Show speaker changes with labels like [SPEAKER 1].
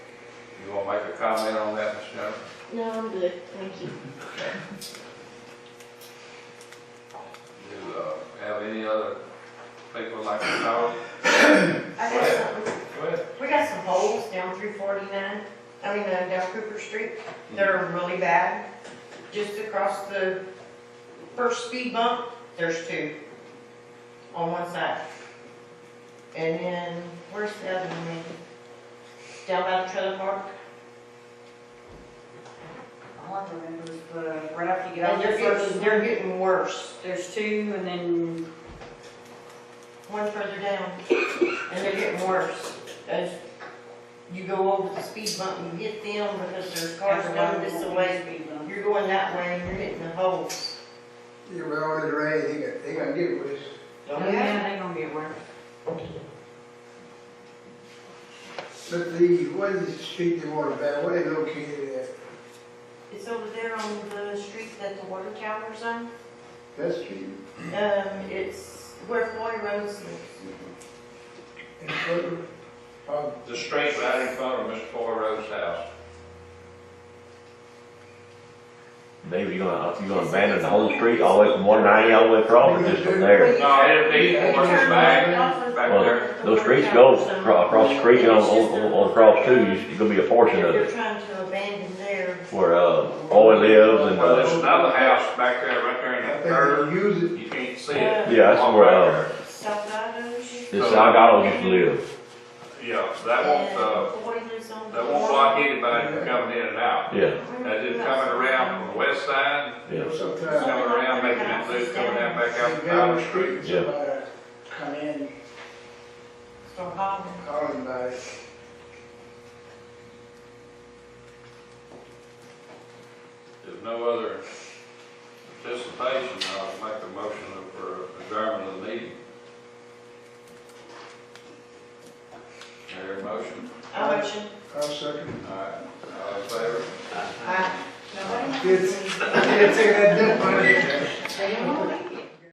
[SPEAKER 1] want to make a comment on that, Ms. Jennifer?
[SPEAKER 2] No, I'm good, thank you.
[SPEAKER 1] Do, uh, have any other people like to talk?
[SPEAKER 3] I got something.
[SPEAKER 1] Go ahead.
[SPEAKER 3] We got some holes down through forty-nine, I mean, uh, down Cooper Street, that are really bad. Just across the first speed bump, there's two on one side. And then, where's the other one? maybe? Down by the trailer park?
[SPEAKER 4] I want the members, but uh, right after you get
[SPEAKER 3] And
[SPEAKER 4] out
[SPEAKER 3] they're
[SPEAKER 4] there
[SPEAKER 3] getting,
[SPEAKER 4] first,
[SPEAKER 3] they're getting worse,
[SPEAKER 4] there's two and then,
[SPEAKER 3] one further down, and they're getting worse. As you go over the speed bump, you hit them because there's cars coming this way. You're going that way and you're hitting the hole.
[SPEAKER 5] Yeah, well, it's rain, they got, they got to get with us.
[SPEAKER 4] Oh, yeah, they gonna be aware.
[SPEAKER 5] But the, what is the street they want about, where they located at?
[SPEAKER 3] It's over there on the street that the water tower's on.
[SPEAKER 5] That street?
[SPEAKER 3] Um, it's where Floyd Rose lives.
[SPEAKER 5] In front of, oh,
[SPEAKER 1] The street right in front of Mr. Foy Rose's house.
[SPEAKER 6] Maybe you're gonna, you're gonna abandon the whole street, all the way from one ninety, all the way across, or just from there.
[SPEAKER 1] No, it'll be towards the back, back there.
[SPEAKER 6] Well, those streets go acro- across the creek and on, on, on across too, you- it's gonna be a portion of
[SPEAKER 3] They're
[SPEAKER 6] it.
[SPEAKER 3] trying to abandon there.
[SPEAKER 6] Where, uh, oil lives and,
[SPEAKER 1] Well, there's
[SPEAKER 6] uh,
[SPEAKER 1] another house back there, right there in
[SPEAKER 5] I
[SPEAKER 1] that
[SPEAKER 5] think
[SPEAKER 1] third,
[SPEAKER 5] they use it,
[SPEAKER 1] you can't see it.
[SPEAKER 6] yeah, that's where, uh,
[SPEAKER 3] South Idaho's.
[SPEAKER 6] the Salgado used to live.
[SPEAKER 1] Yeah, so that won't, uh,
[SPEAKER 3] Floyd lives on.
[SPEAKER 1] that won't block anybody from coming in and out.
[SPEAKER 6] Yeah,
[SPEAKER 1] That's just coming around from the west side,
[SPEAKER 6] yeah.
[SPEAKER 5] sometimes.
[SPEAKER 1] coming around, making that loop, coming down back out the Tyler Street.
[SPEAKER 6] Yeah.
[SPEAKER 5] Somebody Come in,
[SPEAKER 3] So Holland.
[SPEAKER 5] calling about it.
[SPEAKER 1] If no other participation, I'll make a motion for adjournment of the meeting. Your motion,
[SPEAKER 3] I mentioned.
[SPEAKER 5] I'll second.
[SPEAKER 1] all right, all in favor?
[SPEAKER 3] I.
[SPEAKER 5] Kids, I can't take that dump on it.
[SPEAKER 3] Stay home.